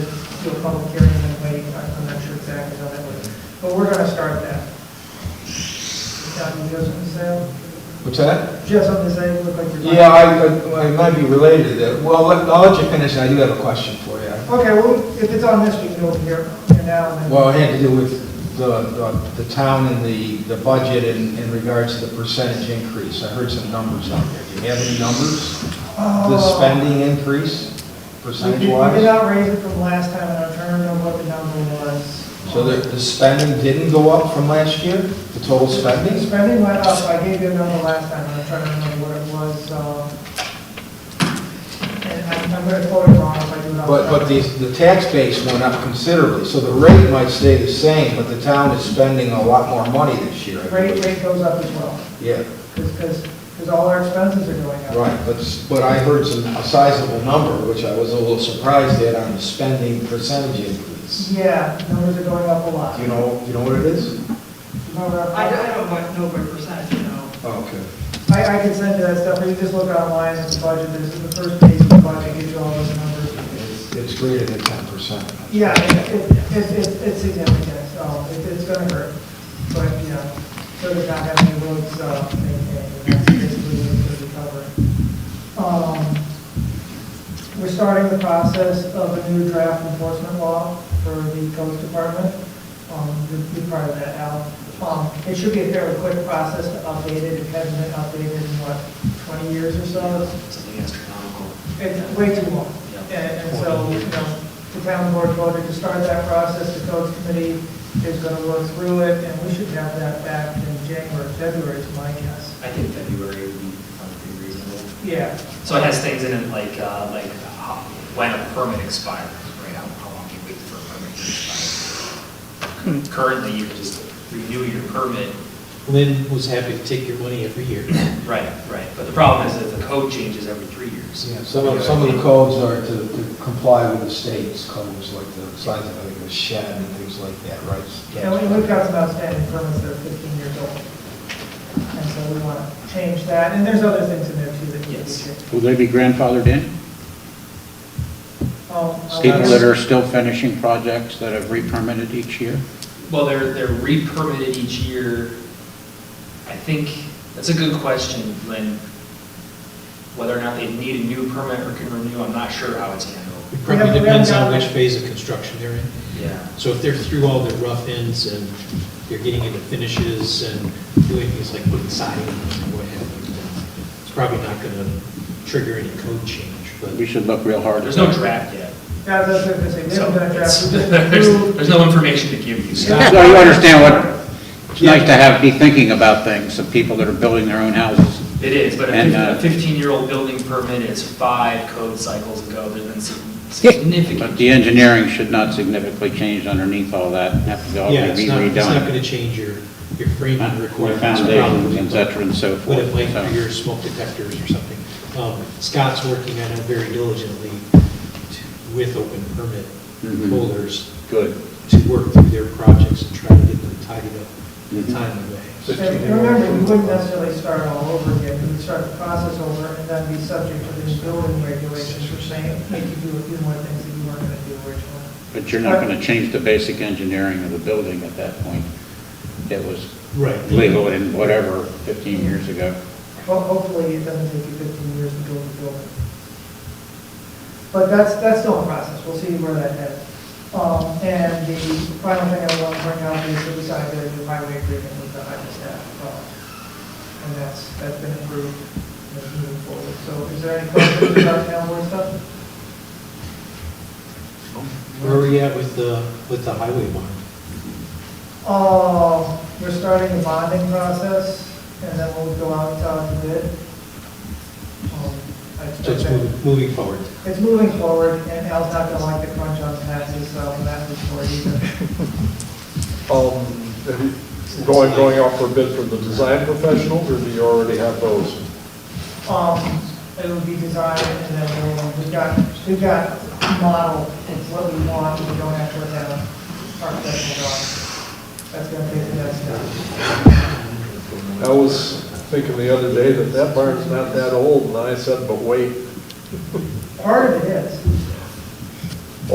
do a public hearing and then wait, I- I'm not sure exactly how that works. But we're gonna start that. John, you have something to say? What's that? Do you have something to say? You look like you're. Yeah, I, I- I might be related to that. Well, let- I'll let you finish, and I do have a question for you. Okay, well, if it's on this, we can go from here, and now, and then. Well, it had to do with the, the- the town and the, the budget in, in regards to the percentage increase. I heard some numbers out there. Do you have any numbers? The Oh. spending increase, We did- percentage we did wise? not raise it from last time, and I'm trying to remember what the number was. So the, the spending didn't go up from last year, the total spending? Spending went up, I gave you a number last time, and I'm trying to remember what it was, um, and I'm, I'm gonna quote it wrong if I do it off. But, but the, the tax base went up considerably, so the rate might stay the same, but the town is spending a lot more money this year. I Rate, believe. rate goes up as well, Yeah. because, because, all our expenses are going up. Right, but, but I heard some, a sizable number, which I was a little surprised at on the spending percentage increase. Yeah, numbers are going up a lot. uh, Do you know, you know what it is? Going up. I don't, I don't want- know by percent, you know. Oh, okay. I, I can send you that stuff, or you just look online at the budget, this is the first page of the budget, gives you all those numbers. It's greater than ten percent. Yeah, it, it, it's- it's, it's significant, so it- it's gonna hurt, but, you know, so does not have any roads, uh, maintained, and that's basically what we cover. Um, We're starting the process of a new draft enforcement law for the codes department, um, you'd be part of that, Al. Um, it should be a fairly quick process to update it, it hasn't been updated in, what, twenty years or so? something astronomical. It's way too long. And Yeah. and so, you know, the town board voted to start that process, the codes committee is going to work through it, and we should have that back in January, February is my guess. I think February would be probably reasonable. Yeah, So it has things in it like, uh, like how- when a permit expires, right? How how long you wait for a permit to expire. Currently, you can just renew your permit. Lynn was happy to take your money every year. Right, right. But the problem is that the code changes every three years. Yeah, some of, some of the codes are to to comply with the state's codes, like the size of like, a shed and things like that, right? and we- we've got some outstanding permits that are 15 years old. And so we want to change that, and there's other things in there too that need Yes. to be Will they be grandfathered in? changed. People that are still finishing projects that have re-permitted each year? Well, they're, they're re-permitted each year. I think, that's a good question, Lynn. Whether or not they need a new permit or can renew, I'm not sure how it's handled. It We haven't- probably we haven't depends on gotten which it. phase of construction they're in. Yeah. So if they're through all the rough ends and they're getting into finishes and doing things like putting siding and what have you, it's probably not going to trigger any code change, but We should look real hard. at There's no that. draft yet. Yeah, that's what I was going to say, we haven't done a So, draft. it's- There's there's no information to give you, so. So you understand what, it's nice to have, be thinking about things, of people that are building their own houses. It is, but And, a uh, fifteen-year-old building permit is five code cycles ago, there's been some significant. But the engineering should not significantly change underneath all that, and have to go yeah, and it's be not, it's not going redone. to change your, your framing With requirements. foundations, et probably. cetera, and so What forth. it might so. for your smoke detectors or something. Um, Scott's working on it very diligently to- with open permit Mhm. holders Good. to work through their projects and try to get them tidied up in a Mhm. timely way. So- And remember, we wouldn't necessarily start all over again, we would start the process over and then be subject to the new building regulations for saying, make you do a few more things that you weren't gonna do originally. But you're not going to change the basic engineering of the building at that point. It was Right. legal in whatever, 15 years ago. Well, hopefully it doesn't take you 15 years to build a building. But that's, that's still in process, we'll see where that heads. Um, And the final thing I want to bring out is that we signed a new highway agreement with the highway staff. uh, And that's, that's been approved, and it's moving forward. So is there any questions about town board stuff? Where are we at with the, with the highway bond? Uh, We're starting the bonding process, and then we'll go out and talk to bid. Um, I So it's expect- moving, moving forward. It's moving forward, and Al's not gonna like the crunch on taxes, so that's for you. Um, and Going, going out for a bid from the design professionals, or do you already have those? Um, it'll be designed, and then we'll, we've got, we've got model, it's what we want, we don't have to have architectural drawings. That's gonna take the next step. I was thinking the other day that that barn's not that old, and I said, but wait, Part of it is,